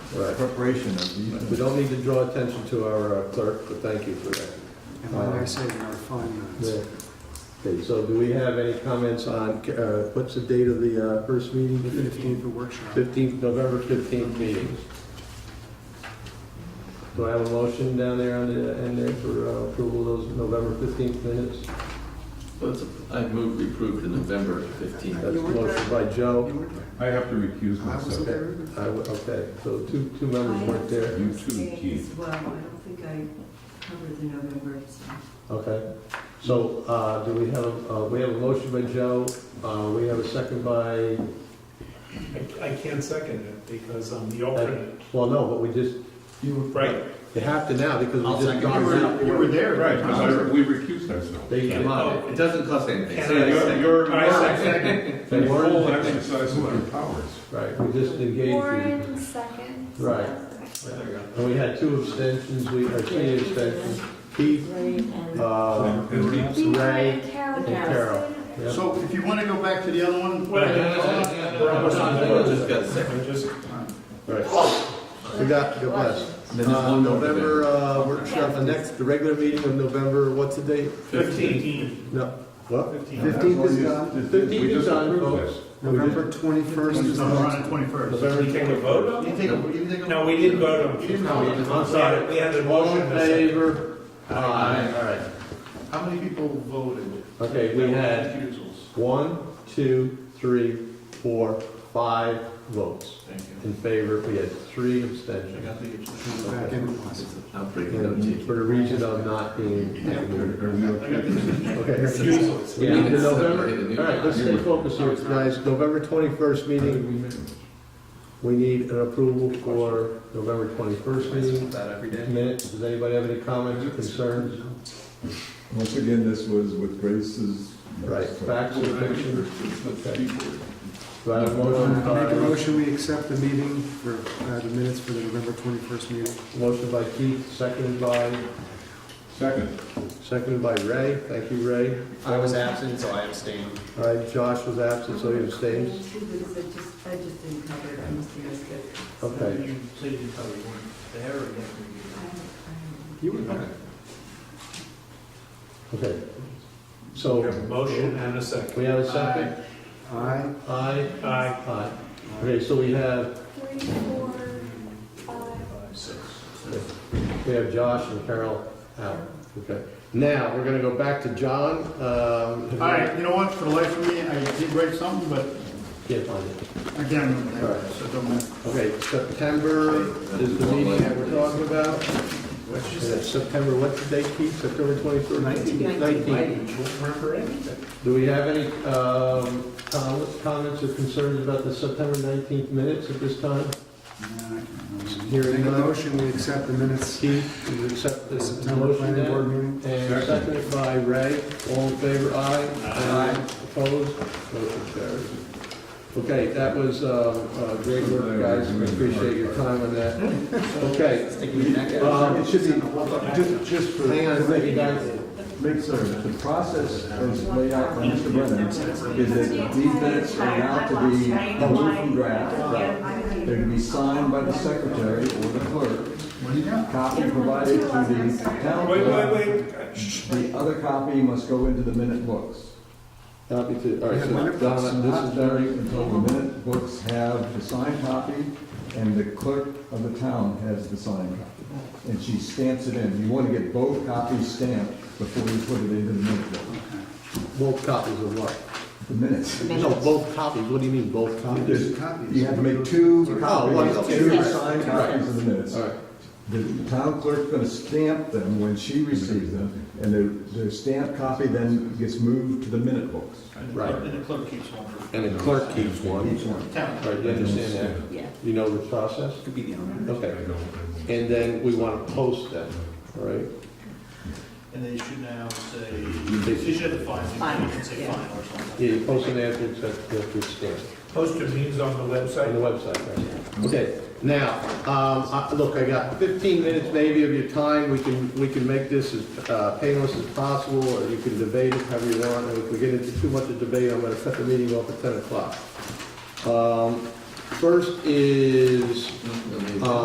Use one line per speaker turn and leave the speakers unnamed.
Right.
preparation of these.
We don't need to draw attention to our uh, clerk, but thank you for that.
And when I say there are five minutes,
Okay, so do we have any comments on, uh, what's the date of the uh, first meeting?
the 15th of workshop.
15th, November 15th meetings. Do I have a motion down there on the end there for uh, approval of those November 15th minutes?
I move we approve the November 15th.
That's a motion by Joe.
You were there?
I have to recuse
I wasn't
myself.
there either.
I w- Okay, so two, two members weren't there.
You too, Keith.
Well, I don't think I covered the November, so.
Okay. So uh, do we have, uh, we have a motion by Joe, Uh, we have a second by,
I- I can't second it because I'm the alternate.
well, no, but we just,
Right,
you have to now because
I'll
we just.
second.
gone through-
You were there. Right, because I- we recused ourselves.
They
Yeah.
come
Oh,
on.
it doesn't cost anything.
Can
So
I-
I
You're,
second.
you're.
I second.
They
in
weren't-
Full exercise of your powers.
Right, we just engaged. you.
Warren seconds.
Right.
Okay.
There we go.
And we had two abstentions, we, or three abstentions, Keith, uh,
And
Be
Ray
kind, Carol.
and Carol. Yeah.
So Oh, if you want to go back to the other one,
No, no, no, no, no, no, no, no, just got a second.
I'm just,
Right. We got, God bless.
And oh. Then there's
Uh,
one more.
November, uh, workshop, the next, the regular meeting of November, what's the date?
15,
No, what?
15.
that's
15th
what
is
you-
done.
this- this- we
15th is
just
on,
approved
folks.
this.
We did.
November 21st is the
We're on
next.
the twenty-first.
Did we
November.
take a vote on
You
it?
can take, a- you can take. a-
No, we didn't vote on it.
No,
I'm sorry.
We had a
All
motion.
in
and a second.
favor? Aye. All right.
How many people voted?
Okay, we had
Recusals.
one, two, three, four, five votes
Thank you.
in favor. We had three abstentions.
I got the abstention.
Back in the closet.
I'll break it up to
And
you.
for the region of not being.
Are we
I
okay?
got the abstention.
Okay.
Recusals.
Yeah, the November, all right, let's stay focused here, guys. November 21st meeting, we need an approval for November 21st meeting.
That every day.
Minutes, does anybody have any comments, concerns?
Once again, this was with Grace's.
Right, facts or fiction? Okay. Do I have a motion?
Uh, Make a
by-
motion, we accept the meeting for, uh, the minutes for the November 21st meeting.
Motion by Keith, seconded by,
Second.
seconded by Ray. Thank you, Ray.
I was absent, so I abstained.
All right, Josh was absent, so he abstains.
Two, because I just, I just didn't cover it, I must be mistaken.
Okay.
I- I-
You were there.
Okay.
We
So
have a motion and a second.
we have a second?
Aye.
Aye.
Aye.
Aye. Okay, so we have,
Three, four, five.
we have Josh and Carol out. Okay. Now, we're gonna go back to John. Um,
All right, you know what, for the life of me, I did write something, but
Can't find it.
I can't remember, that, so it don't matter.
Okay, September is the meeting that we're talking about.
What'd you
And September, what's the date, Keith? September twenty-third?
Nineteenth.
Remember anything?
Do we have any, um, com- comments or concerns about the September nineteenth minutes at this time?
Make
Hearing
a
none.
motion, we accept the minutes
Keith, do you accept
for the
this
September
motion
planning
then?
board meeting.
And seconded by Ray, all in favor, aye? Aye. Opposed? Motion carries. Okay, that was, um, uh, great work, guys, we appreciate your time on that. Okay,
Sticking my neck out.
um, it should be,
Just, just for.
hang on, thank you guys.
Make sure the process as laid out by Mr. Brennan is that these minutes are now to be pulled from draft. They're to be signed by the secretary or the clerk. Copy provided to the town
Wait, wait,
clerk.
wait. Shh.
The other copy must go into the minute books.
Happy to, all right,
It's not
so,
done-
Donna,
This is very until the minute books have the signed copy and the clerk of the town has the signed copy. And she stamps it in. You want to get both copies stamped before you put it into the minute book.
this- both copies of what?
The minutes.
No, both copies, what do you mean, both copies?
There's- You have to make two
one,
copies,
okay.
two
Right.
signed copies of the minutes.
All right,
The town clerk's going to stamp them when she receives them, and their, their stamped copy then gets moved to the minute books.
Right.
And the clerk keeps one.
and the clerk keeps one.
Each one.
Town.
All right, you understand that?
Yeah.
You know the process?
Could be the owner.
Okay. And then we want to post them, all right?
And they should now say, they should have the fine,
Fine,
they should say
yeah.
fine or something.
Yeah, you post an after it's, after it's stamped.
Posted means on the
on the
website.
website, right? Okay, now, um, I- look, I got 15 minutes maybe of your time, we can, we can make this as uh, painless as possible, or you can debate it however you want, and if we get into too much of debate, I'm gonna cut the meeting off at 10 o'clock. Um, First is,
No, no, no.
uh,